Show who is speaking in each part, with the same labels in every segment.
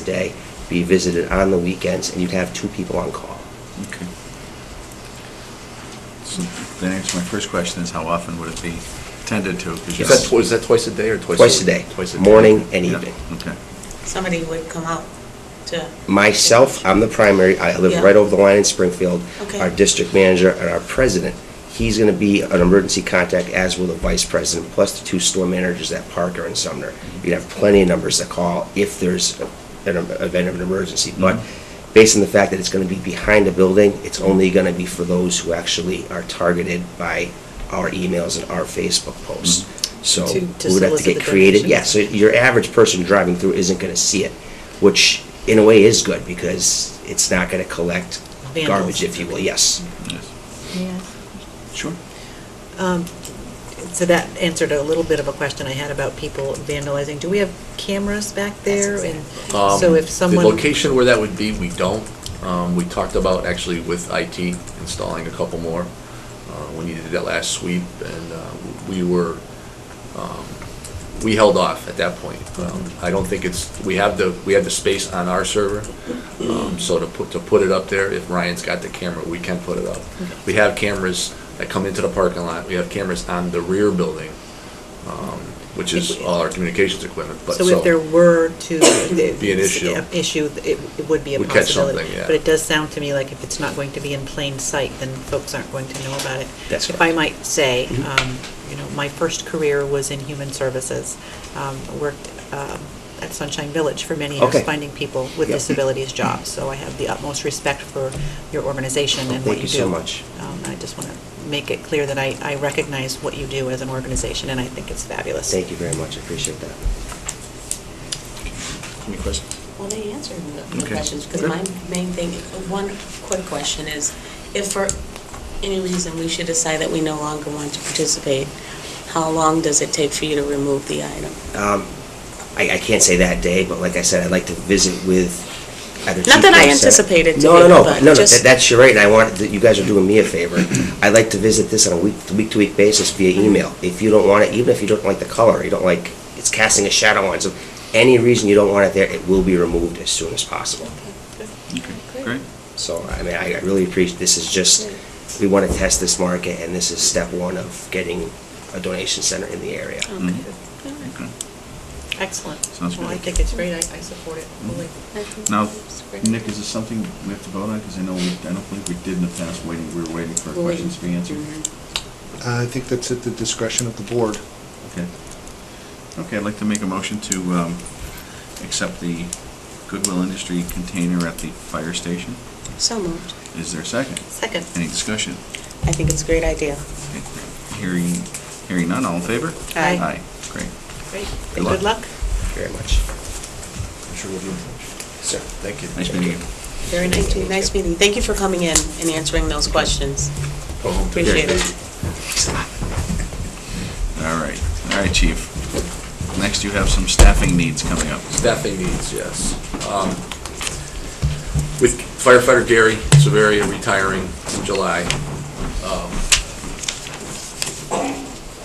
Speaker 1: a day, be visited on the weekends, and you'd have two people on call.
Speaker 2: Okay. So That answers my first question, is how often would it be tended to? 'Cause you-
Speaker 1: Yes. Is that twi-
Speaker 3: that twice a day or twice
Speaker 1: Twice a day,
Speaker 3: Twice a day.
Speaker 1: morning and
Speaker 2: Yeah,
Speaker 1: evening.
Speaker 2: Okay.
Speaker 4: somebody would come out to...
Speaker 1: Myself, I'm the primary, I live
Speaker 4: Yeah.
Speaker 1: right over the line in Springfield.
Speaker 4: Okay.
Speaker 1: Our district manager and our president, he's gonna be an emergency contact, as will the vice president, plus the two store managers at Parker and Sumner. You'd have plenty of numbers to call if there's an em- event of an emergency.
Speaker 4: Mm-hmm.
Speaker 1: But
Speaker 2: Mhm.
Speaker 1: based on the fact that it's gonna be behind a building, it's only gonna be for those who actually are targeted by our emails and our Facebook posts. So
Speaker 4: Mm-hmm. To- to
Speaker 1: we would have to
Speaker 4: solicit
Speaker 1: get
Speaker 4: the
Speaker 1: creative,
Speaker 4: donations.
Speaker 1: yeah, so your average person driving through isn't gonna see it, which in a way is good because it's not gonna collect
Speaker 4: Vandals.
Speaker 1: garbage, if you will, yes.
Speaker 2: Yes.
Speaker 4: Yes.
Speaker 2: Sure.
Speaker 4: Um, So that answered a little bit of a question I had about people vandalizing. Do we have cameras back there? And
Speaker 3: Um,
Speaker 4: so if someone...
Speaker 3: The location where that would be, we don't. Um, We talked about actually with IT installing a couple more. Uh, When you did that last sweep, and uh, we were, um, we held off at that point. Um,
Speaker 4: Mm-hmm.
Speaker 3: I don't think it's, we have the, we have the space on our server, Um, so to put, to put it up there, if Ryan's got the camera, we can put it up.
Speaker 4: Mm-hmm.
Speaker 3: We have cameras that come into the parking lot, we have cameras on the rear building, um, which is all our communications equipment, but so.
Speaker 4: So if there were to...
Speaker 3: Be an issue.
Speaker 4: an issue, it it would be a
Speaker 3: We'd catch
Speaker 4: possibility.
Speaker 3: something, yeah.
Speaker 4: But it does sound to me like if it's not going to be in plain sight, then folks aren't going to know about it.
Speaker 1: That's
Speaker 4: If
Speaker 1: correct.
Speaker 4: I might say,
Speaker 1: Mhm.
Speaker 4: um, you know, my first career was in human services. Um, Worked um, at Sunshine Village for many years,
Speaker 1: Okay.
Speaker 4: finding people with
Speaker 1: Yep.
Speaker 4: disabilities jobs. So I have the utmost respect for your organization and
Speaker 1: Thank
Speaker 4: what
Speaker 1: you
Speaker 4: you
Speaker 1: so
Speaker 4: do.
Speaker 1: much.
Speaker 4: Um, I just want to make it clear that I I recognize what you do as an organization, and I think it's fabulous.
Speaker 1: Thank you very much, I appreciate that.
Speaker 2: Any questions?
Speaker 5: Well, they answered the- the
Speaker 2: Okay,
Speaker 5: questions, because
Speaker 2: good.
Speaker 5: my main thing, one quick question is, if for any reason we should decide that we no longer want to participate, how long does it take for you to remove the item?
Speaker 1: Um, I, I can't say that day, but like I said, I'd like to visit with either.
Speaker 5: Not
Speaker 1: Chief
Speaker 5: that I
Speaker 1: Grosset-
Speaker 5: anticipated to
Speaker 1: No,
Speaker 5: be,
Speaker 1: no, no,
Speaker 5: but
Speaker 1: no, no,
Speaker 5: just-
Speaker 1: that- that's your right, and I want, that you guys are doing me a favor. I'd like to visit this on a week, week-to-week basis via email. If you don't want it, even if you don't like the color, you don't like, it's casting a shadow on, it, so any reason you don't want it there, it will be removed as soon as possible.
Speaker 2: Okay, great.
Speaker 1: So, I mean, I I really appreciate, this is just, we want to test this market, and this is step one of getting a donation center in the area.
Speaker 5: Okay. All right.
Speaker 2: Mm-hmm. Okay.
Speaker 4: Excellent.
Speaker 2: Sounds
Speaker 4: Well, I
Speaker 2: good.
Speaker 4: think it's great. I I support it fully.
Speaker 2: Mm-hmm.
Speaker 5: I think
Speaker 2: Now,
Speaker 5: that's great.
Speaker 2: Nick, is this something we have to vote on? Because I know, we I don't think we did in the past, waiting, we were waiting for
Speaker 5: We'll wait.
Speaker 2: questions to be answered.
Speaker 5: Mhm.
Speaker 6: Uh, I think that's at the discretion of the board.
Speaker 2: Okay. Okay, I'd like to make a motion to um, accept the Goodwill Industry container at the fire station.
Speaker 5: So moved.
Speaker 2: Is there a second?
Speaker 4: Second.
Speaker 2: Any discussion?
Speaker 5: I think it's a great idea.
Speaker 2: Hearing, hearing none, all in favor?
Speaker 4: Aye.
Speaker 2: Aye, great.
Speaker 4: Great.
Speaker 2: Good
Speaker 4: Good
Speaker 2: luck.
Speaker 4: luck.
Speaker 1: Thank you very much.
Speaker 3: I'm sure we'll be in touch.
Speaker 1: Sir.
Speaker 3: Thank you.
Speaker 2: Nice meeting you.
Speaker 5: Very nice meeting, nice meeting. Thank you for coming in and answering those questions.
Speaker 3: Go home.
Speaker 5: Appreciate it.
Speaker 2: All right, all right, chief. Next, you have some staffing needs coming up.
Speaker 3: Staffing needs, yes. Um, With firefighter Gary Severia retiring in July, um,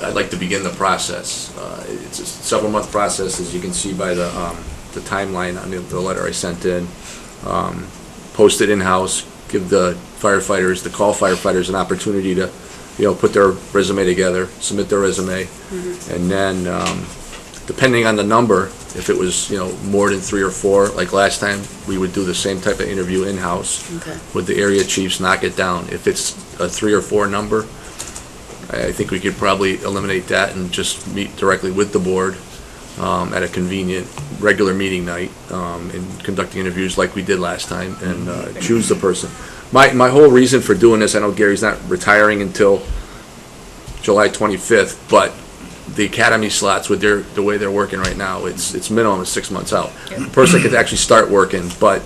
Speaker 3: I'd like to begin the process. Uh, It's a several-month process, as you can see by the um, the timeline on the- the letter I sent in. Um, Post it in-house, give the firefighters, the call firefighters, an opportunity to, you know, put their resume together, submit their resume, and then um, depending on the number, if it was, you know, more than three or four, like last time, we would do the same type of interview in-house.
Speaker 5: Okay.
Speaker 3: Would the area chiefs knock it down? If it's a three or four number, I I think we could probably eliminate that and just meet directly with the board um, at a convenient, regular meeting night um, and conducting interviews like we did last time and uh, choose the person. My, my whole reason for doing this, I know Gary's not retiring until July 25th, but the academy slots with their, the way they're working right now, it's, it's minimum is six months out. The Person could actually start working, but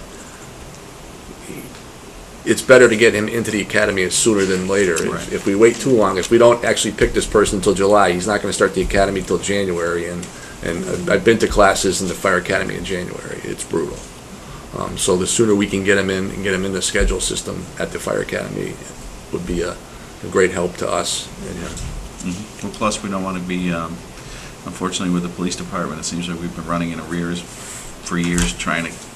Speaker 3: it's better to get him into the academy sooner than later. If-
Speaker 2: Right.
Speaker 3: If we wait too long, if we don't actually pick this person until July, he's not gonna start the academy until January, and, and I've- I've been to classes in the fire academy in January, it's brutal. Um, so the sooner we can get him in and get him in the schedule system at the fire academy would be a, a great help to us and him.
Speaker 2: Mhm. Well, plus, we don't want to be, um, unfortunately, with the police department, it seems like we've been running in arrears for years trying to